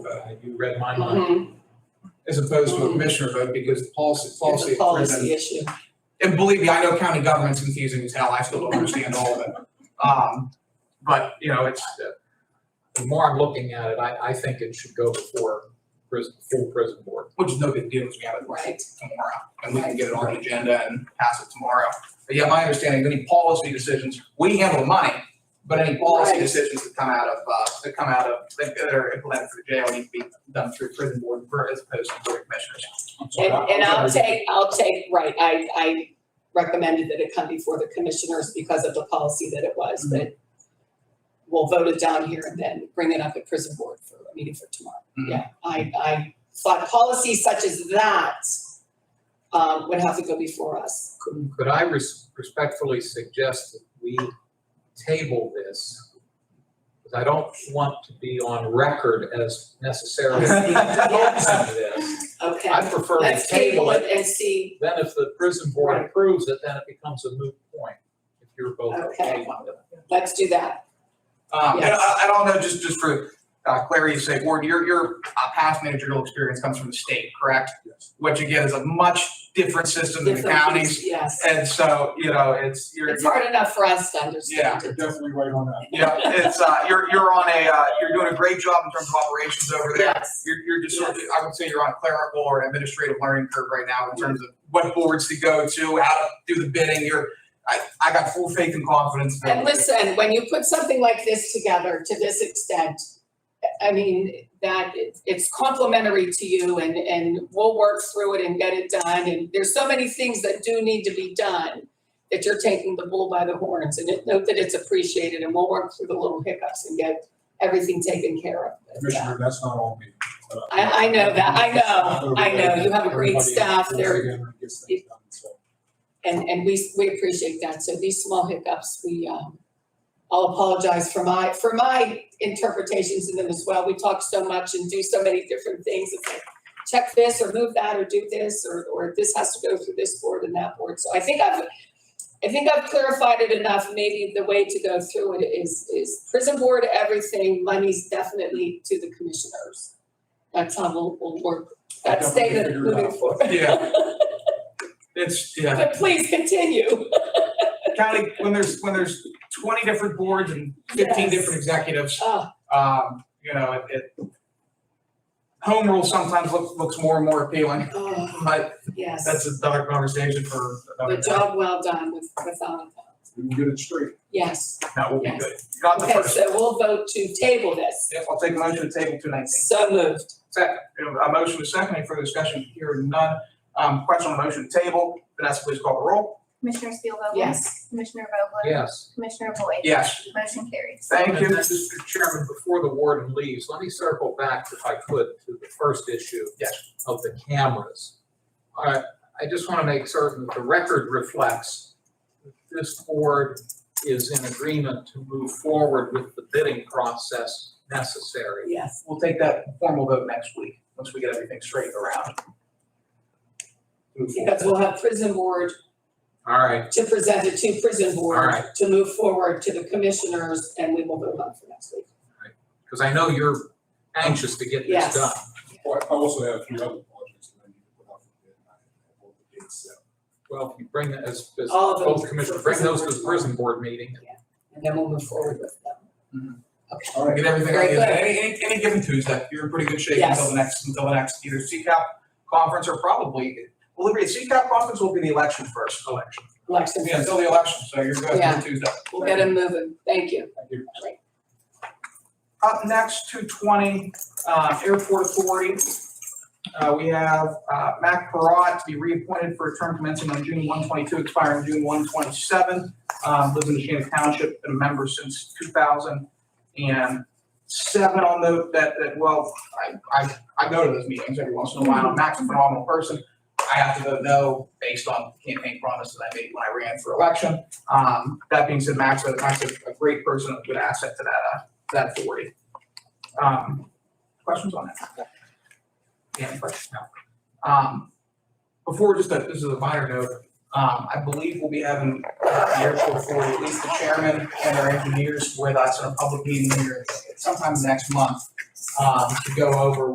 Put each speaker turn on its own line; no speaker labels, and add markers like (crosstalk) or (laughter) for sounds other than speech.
I- uh, you read my mind,
Mhm.
as opposed to a commissioner vote because the policy,
It's
policy.
a policy issue.
And believe me, I know county government's confusing as hell, I still don't understand all of it. Um, but, you know, it's, uh, the more I'm looking at it, I, I think it should go before prison, full prison board, which is no big deal, because we have it right tomorrow. And we can get it on the agenda and pass it tomorrow. But yeah, my understanding, any policy decisions, we handle the money, but any policy
Right.
decisions that come out of, uh, that come out of, that are implemented through jail need to be done through prison board as opposed to board of commissioners.
And, and I'll take, I'll take, right, I, I recommended that it come before the commissioners because of the policy that it was,
Mm-hmm.
but we'll vote it down here and then bring it up at prison board for a meeting for tomorrow.
Mhm.
Yeah, I, I thought policies such as that, um, would have to go before us.
Could could I res- respectfully suggest that we table this? Because I don't want to be on record as
(laughs)
necessarily endorsing this. I
Okay,
prefer to
let's
table it.
and see,
Then if the prison board
Right.
approves it, then it becomes a moot point, if you're both okay
Okay.
with it.
let's do that.
Um, and
Yes.
I, I don't know, just, just for uh, clarity's sake, Ward, your, your uh, past managerial experience comes from the state, correct? Yes. What you get is a much different system than the
Different-
counties,
Yes,
and so, you know, it's, you're.
it's hard enough for us to understand.
You're definitely right on that.
Yeah, it's, uh, you're, you're on a, uh, you're doing a great job in terms of operations over there.
Yes,
You're, you're just sort of, I would say you're on a clerical or administrative learning curve right now in terms of what boards to go to, how to do the bidding, you're, I, I got full faith and confidence. that-
and listen, when you put something like this together to this extent, I mean, that it's- it's complimentary to you and, and we'll work through it and get it done. And there's so many things that do need to be done that you're taking the bull by the horns and it- note that it's appreciated and we'll work through the little hiccups and get everything taken care of. But, uh,
Commissioner, that's not on me. but uh,
I- I know that. I know. I know. You have a great
(laughs) Everybody
staff.
pulls
They're-
together and gets things done, so.
And, and we, we appreciate that. So these small hiccups, we, um, I'll apologize for my, for my interpretations in them as well. We talk so much and do so many different things. It's like, check this or move that or do this, or, or this has to go through this board and that board. So I think I've, I think I've clarified it enough. Maybe the way to go through it is, is prison board, everything, money's definitely to the commissioners. That's how we'll, we'll work.
I
That's
definitely
statement
figured it
moving
out.
forward. (laughs)
Yeah. It's, yeah.
But (laughs) please continue.
county, when there's, when there's twenty different boards and fifteen
Yes.
different executives,
Oh,
um, you know, it- it, home rule sometimes looks, looks more and more appealing, (laughs)
Oh,
but
yes,
that's another conversation for another.
the job well done with, with all of that,
We can get it straight.
yes.
That will be
Yes.
good. Not the
Okay,
first.
so we'll vote to table this.
Yes, I'll take a motion to table two nineteen.
So moved.
Second, we have a motion is second, any further discussion, hearing none. Um, question on the motion to table, Vanessa, please call the roll.
Commissioner Spielvogel.
Yes.
Commissioner Vogler?
Yes.
Commissioner Boyd?
Yes.
Motion carries.
Thank you. Mr. Chairman, before the warden leaves, let me circle back, if I could, to the first issue. Of the cameras. I, I just want to make certain that the record reflects that this board is in agreement to move forward with the bidding process necessary.
Yes.
We'll take that formal vote next week, once we get everything straightened around. Move forward.
Because we'll have prison board
All right,
to present it to prison
All
board
right.
to move forward to the commissioners and we will vote on for next week.
because I know you're anxious to get this
Yes.
done.
Well, I also have a few other projects that I need to put out for bid. and I have all the dates set.
Well, if you bring that as, as
All of those
both commissioners, bring those to the prison board meeting.
And then we'll move forward with them. Okay,
All right,
Get everything,
Very good.
any, any, any given Tuesday, you're in pretty good shape
Yes.
until the next, until the next either CCAP conference or probably, well, the CCAP conference will be the election first. Election.
election,
Yeah, until the election, so you're good
Yeah.
until Tuesday.
we'll get them moving. Thank you.
thank you.
Up next, two twenty, uh, Airport Authority. Uh, we have, uh, Mac Parat to be reappointed for a term commencing on June one twenty-two, expiring June one twenty-seven. Um, lives in Shannon Township, been a member since two thousand and seven, I'll note that, that, well, I, I, I go to those meetings every once in a while, Mac's a phenomenal person. I have to vote no based on campaign promises I made when I ran for election. Um, that being said, Mac's a, Mac's a a great person, a good asset to that, uh, that authority. Um, questions on that? Any questions? No. Um, before, just a, this is a minor note, um, I believe we'll be having uh, the airport authority, at least the chairman and our engineers with us in a public meeting here sometime next month, um, to go over